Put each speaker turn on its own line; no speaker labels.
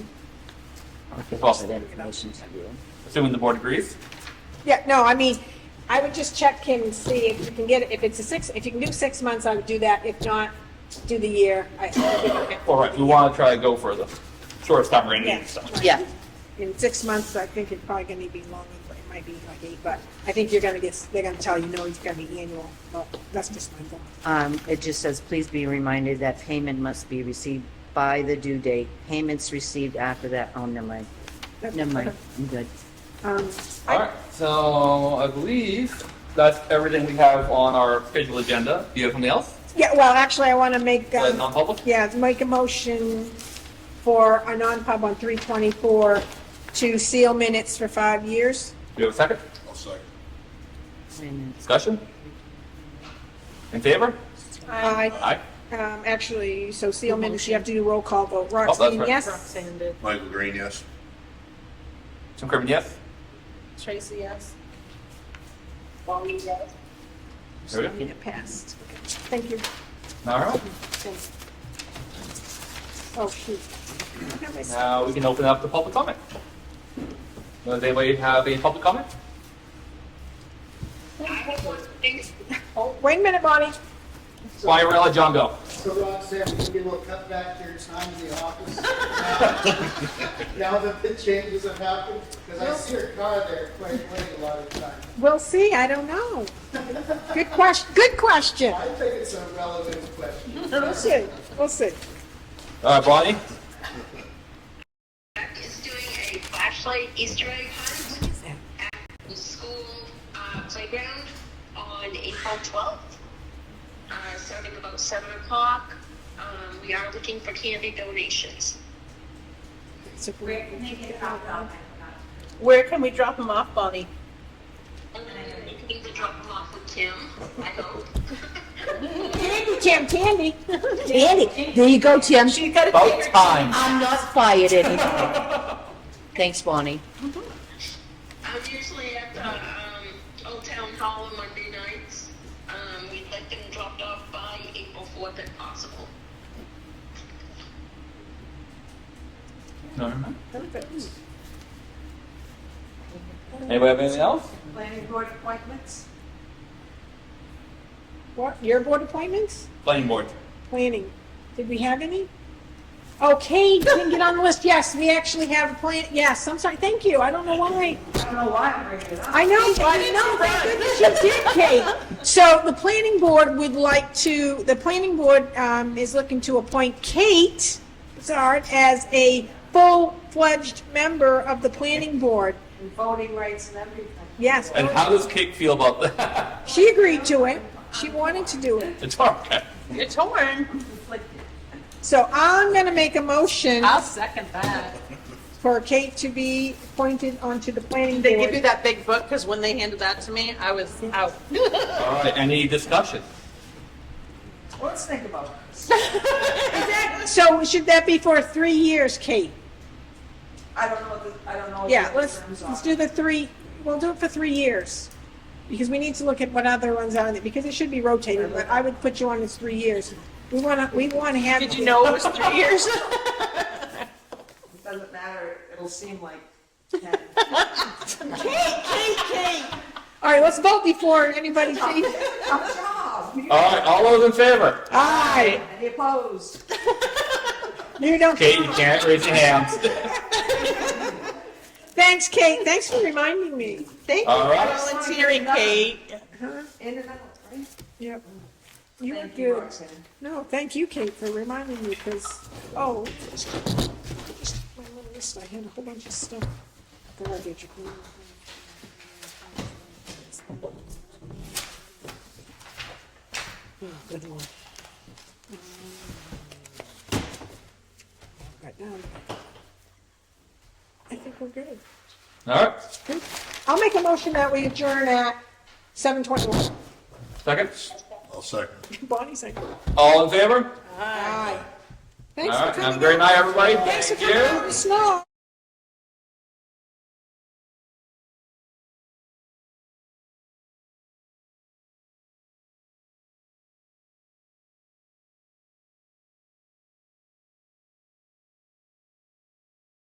Awesome.
that information to you.
Assuming the board agrees?
Yeah, no, I mean, I would just check him and see if you can get, if it's a six, if you can do six months, I would do that. If not, do the year. I- I think I can-
All right, we want to try to go for the shortest time range
Yeah.
and stuff.
right.
Yeah.
In six months, I think it's probably gonna be longer, but it might be like eight, but I think you're gonna get, they're gonna tell you, no, it's gonna be annual, but that's just my thought.
Um, it just says, please be reminded that payment must be received by the due date. Payments received after that, oh, never mind.
That's-
Never mind, I'm good.
Um,
All
I,
right, so I believe that's everything we have on our scheduled agenda. Do you have something else?
yeah, well, actually, I wanna make,
Like
um,
non-public?
yeah, make a motion for a non-pub on three twenty-four to seal minutes for five years.
Do you have a second?
I'll second.
Wait a minute.
Discussion? In favor?
Aye.
Aye.
Um, actually, so seal minutes, you have to do roll call vote. Roxanne,
Oh, right.
yes?
Michael Green, yes.
Jim Kirby, yes?
Tracy, yes? Bonnie, yes?
There we
I mean, it passed. Okay. Thank you.
All right,
Thank you. Oh, shoot. Have I-
now we can open up the public comment. Does anybody have any public comment?
Oh, Wait a minute, Bonnie.
Why, we're gonna let John go.
So Rob said we can get a little cut back here, it's time in the office. Now that the changes have happened, because I see her car there quite late a lot of times.
We'll see, I don't know. Good question, good question.
I think it's a relevant question.
We'll see, we'll see.
All right, Bonnie?
Jack is doing a flashlight Easter egg hunt at the school uh, playground on April 12th, uh, starting about 7 o'clock. Um, we are looking for candy donations.
It's a great-
Where can we drop them off, Bonnie?
And then you can either drop them off with Kim, I hope.
Candy, Tim, candy.
Andy, there you go, Tim.
She's got a
About time.
I'm not fired anymore. Thanks, Bonnie.
I'm usually at the um, Old Town Hall on Monday nights. Um, we'd like them dropped off by April 4th if possible.
All right. Anybody have anything else?
planning board appointments.
What, your board appointments?
Planning board.
Planning. Did we have any? Okay, didn't get on the list. Yes, we actually have a plan. Yes, I'm sorry. Thank you. I don't know why. I don't know why I'm bringing it up. I know, but I know. Thank goodness you did, Kate. So the planning board would like to, the planning board um, is looking to appoint Kate Bizarre as a full-fledged member of the planning board.
Voting rights and everything.
Yes,
And how does Kate feel about that?
she agreed to it. She wanted to do it.
It's okay.
You're torn.
So I'm going to make a motion.
I'll second that.
for Kate to be appointed onto the planning
They give you
board.
that big book, because when they handed that to me, I was out.
All right, any discussion?
Let's think about it.
So should that be for three years, Kate?
I don't know what the, I don't know. what
Yeah,
the
let's,
terms
let's
are.
do the three, we'll do it for three years. Because we need to look at what other ones are on it, because it should be rotated, but I would put you on as three years. We wanna, we wanna have.
Did you know it was three years?
It doesn't matter, it'll seem like ten.
All right, let's vote before anybody sees.
Good job.
All right, all those in favor?
Aye,
Any opposed?
you don't.
Kate, you can't raise your hands.
Thanks, Kate, thanks for reminding me.
Thank you
All
for
right.
volunteering, Kate.
In and out, right?
Yep. You were
Thank you,
good.
Roxanne.
No, thank you, Kate, for reminding me, because, oh, just- just my little list, I had a whole bunch of stuff. Garbage. Oh, good one. Right now, I think we're good.
All right,
I'll make a motion that we adjourn at seven twenty-one.
second.
I'll second.
Bonnie's second.
All in favor?
Aye.
All
Thanks for
right,
coming.
have a great
out.
night, everybody.
Thanks for
Thank
coming
you.
out in the snow.